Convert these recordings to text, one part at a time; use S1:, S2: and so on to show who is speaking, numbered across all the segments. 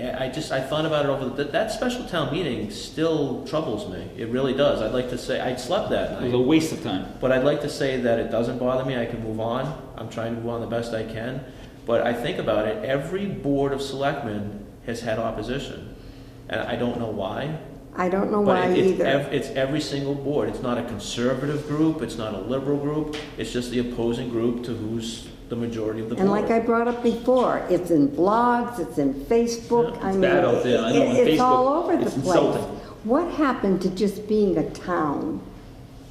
S1: I, I just, I thought about it over, the- that, that special town meeting still troubles me. It really does. I'd like to say, I slept that
S2: It was a
S1: night.
S2: waste of time.
S1: But I'd like to say that it doesn't bother me. I can move on. I'm trying to move on the best I can. But I think about it, every board of selectmen has had opposition. And I don't know why.
S3: I don't know
S1: But
S3: why
S1: it- it's
S3: either.
S1: ev- It's every single board. It's not a conservative group, it's not a liberal group, it's just the opposing group to who's the majority of the board.
S3: And like I brought up before, it's in blogs, it's in Facebook,
S1: Yeah,
S3: I
S2: it's
S3: mean.
S2: bad out there. I know,
S3: it-
S2: on
S3: It's all
S2: Facebook,
S3: over the
S2: it's
S3: place.
S2: insulting.
S3: What happened to just being a town?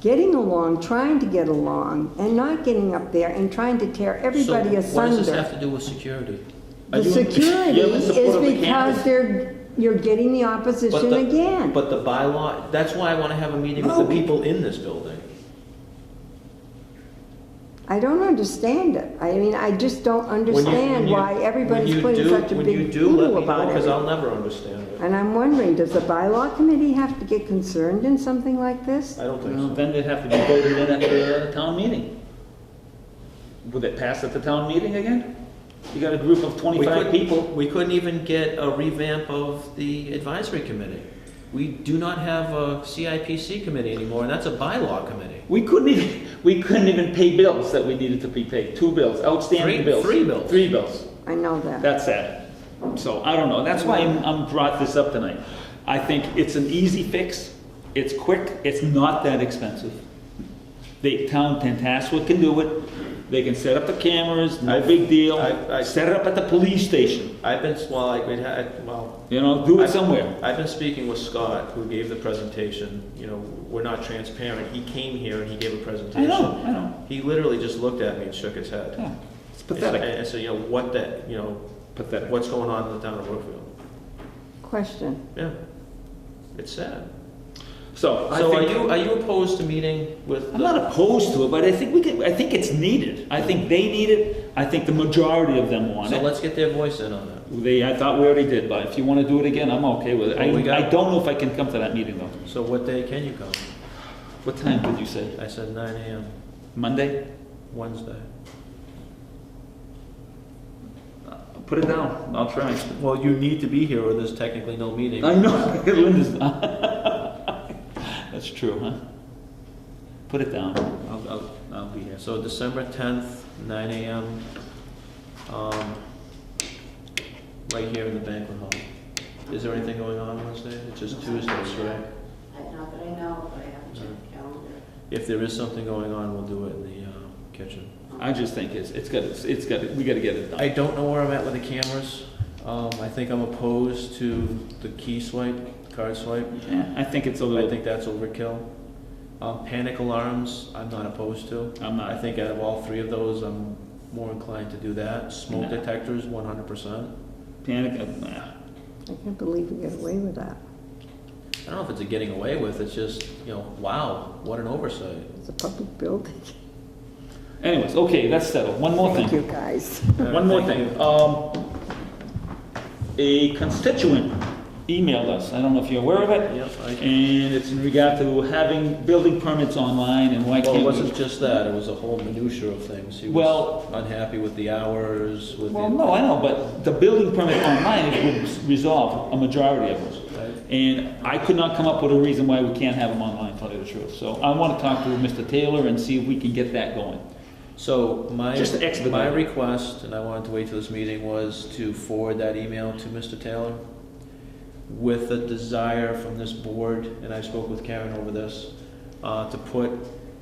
S3: Getting along, trying to get along, and not getting up there and trying to tear
S1: So
S3: everybody
S1: What does this have
S3: asunder.
S1: to do with security?
S2: Are
S3: The
S2: you in-
S3: security
S2: you're in
S3: is
S2: support of the
S3: because
S2: candidates?
S3: they're, you're getting the
S1: But
S3: opposition
S1: the-
S3: again.
S1: But the bylaw, that's why I want to have a meeting with the
S2: No.
S1: people in this building.
S3: I don't understand it. I mean, I just don't
S1: When you- when
S3: understand
S1: you-
S3: why
S1: when
S3: everybody's
S1: you
S3: putting
S1: do-
S3: such a big hoodoo about
S1: Because
S3: it.
S1: I'll never understand it.
S3: And I'm wondering, does the bylaw committee have to get concerned in something like this?
S1: I don't think
S2: Well,
S1: so.
S2: Then it'd have to be voted in at the town meeting. Would it pass at the town meeting again? You got a group of
S1: We
S2: twenty-five
S1: couldn't-
S2: people.
S1: We couldn't even get a revamp of the advisory committee. We do not have a CIPC committee anymore, and that's a bylaw committee.
S2: We couldn't even, we couldn't even pay bills that we needed to be paid, two bills,
S1: Three-
S2: outstanding bills.
S1: three bills.
S2: Three bills,
S3: I know that.
S2: that's sad. So, I don't know, that's why I'm, I'm brought this up tonight. I think it's an easy fix, it's quick, it's not that expensive. The town, Tantascwa can do it, they can set up the cameras, no
S1: I-
S2: big deal.
S1: I- I-
S2: Set it up at the police station.
S1: I've been, well, I, we'd had- well,
S2: You know, do it
S1: I-
S2: somewhere.
S1: I've been speaking with Scott, who gave the presentation, you know, we're not transparent. He came here and he gave a
S2: I
S1: presentation.
S2: know, I know.
S1: He literally just looked at me and shook his head.
S2: Yeah, it's
S1: And,
S2: pathetic.
S1: and so, you know, what that, you know,
S2: Pathetic.
S1: what's going on in the town of Brookfield?
S3: Question.
S1: Yeah, it's sad.
S2: So, I
S1: So are
S2: think,
S1: you, are you opposed to meeting with?
S2: I'm
S1: the-
S2: not opposed to it, but I think we could, I think it's needed. I think they need it. I think the majority of them want
S1: So
S2: it.
S1: let's get their voice in on that.
S2: They, I thought we already did, but if you want to do it again, I'm okay with it. I,
S1: Well, we got-
S2: I don't know if I can come to that meeting though.
S1: So what day can you come?
S2: What time did you say?
S1: I said nine AM,
S2: Monday?
S1: Wednesday.
S2: Put it down. I'll try.
S1: Well, you need to be here or there's technically no meeting.
S2: I know, Linda's not. That's true, huh? Put it down. I'll, I'll, I'll be here.
S1: So December tenth, nine AM, um, right here in the banquet hall. Is there anything going on Wednesday? It's just Tuesdays, right?
S4: I Not that I know, but I haven't checked the calendar.
S1: If there is something going on, we'll do it in the, uh, kitchen.
S2: I just think it's, it's got, it's got, we gotta get it done.
S1: I don't know where I'm at with the cameras. Um, I think I'm opposed to the key swipe, card swipe.
S2: Yeah, I think it's a
S1: I
S2: little,
S1: think that's overkill. Um, panic alarms, I'm not opposed to.
S2: I'm
S1: I
S2: not,
S1: think out of all three of those, I'm more inclined to do that. Smoke
S2: No.
S1: detectors, one hundred percent.
S2: panic, uh, nah.
S3: I can't believe we got away with that.
S1: I don't know if it's a getting away with, it's just, you know, wow, what an oversight.
S3: It's a public building.
S2: anyways, okay, that's settled, one more
S3: Thank you,
S2: thing,
S3: guys.
S2: one more
S1: Thank
S2: thing. Um, a constituent emailed us, I don't know if you're aware of it,
S1: Yep, I,
S2: and it's in regard to having building permits online and why
S1: well, it
S2: can't
S1: wasn't
S2: we?
S1: just that, it was a whole minutia of things. He was
S2: Well-
S1: unhappy with the hours, with
S2: Well,
S1: the.
S2: no, I know, but the building permit online would s- resolve a majority of those.
S1: Right.
S2: And I could not come up with a reason why we can't have them online, tell you the truth. So I wanna talk to Mr. Taylor and see if we can get that going.
S1: So my,
S2: Just to expedite
S1: my
S2: it.
S1: request, and I wanted to wait till this meeting, was to forward that email to Mr. Taylor with a desire from this board, and I spoke with Karen over this, uh, to put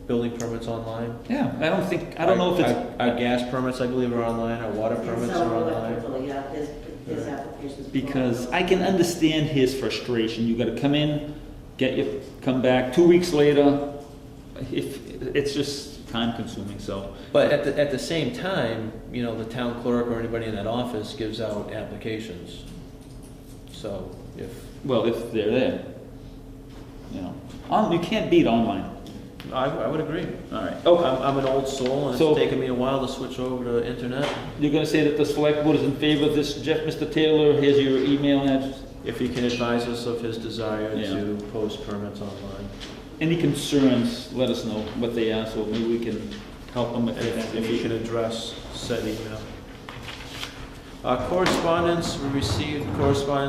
S1: building permits online.
S2: Yeah, I don't think, I don't know if it's.
S1: Our- Our our gas permits, I believe, are online, our water permits
S4: Some
S1: are
S4: of them
S1: online.
S4: people, Yeah, his, his applications.
S2: because I can understand his frustration. You got to come in, get your, come back two weeks later. If it's just time consuming, so
S1: But at the, at the same time, you know, the town clerk or anybody in that office gives out applications. So if,
S2: well if they're there, you know, on, you can't beat online.
S1: I, I would agree.
S2: All right.
S1: Oh,
S2: Oh,
S1: I'm, I'm an old soul, and
S2: So-
S1: it's taken me a while to switch over to internet.
S2: you're going to say that the select board is in favor of this, Jeff, Mr. Taylor. Here's your email address.
S1: If he can advise us of his desire
S2: Yeah.
S1: to post permits online.
S2: Any concerns? Let us know what they are, so maybe we can help them if
S1: And
S2: they
S1: if
S2: have
S1: if he
S2: any.
S1: can address said email. Uh, Correspondence, we received correspondence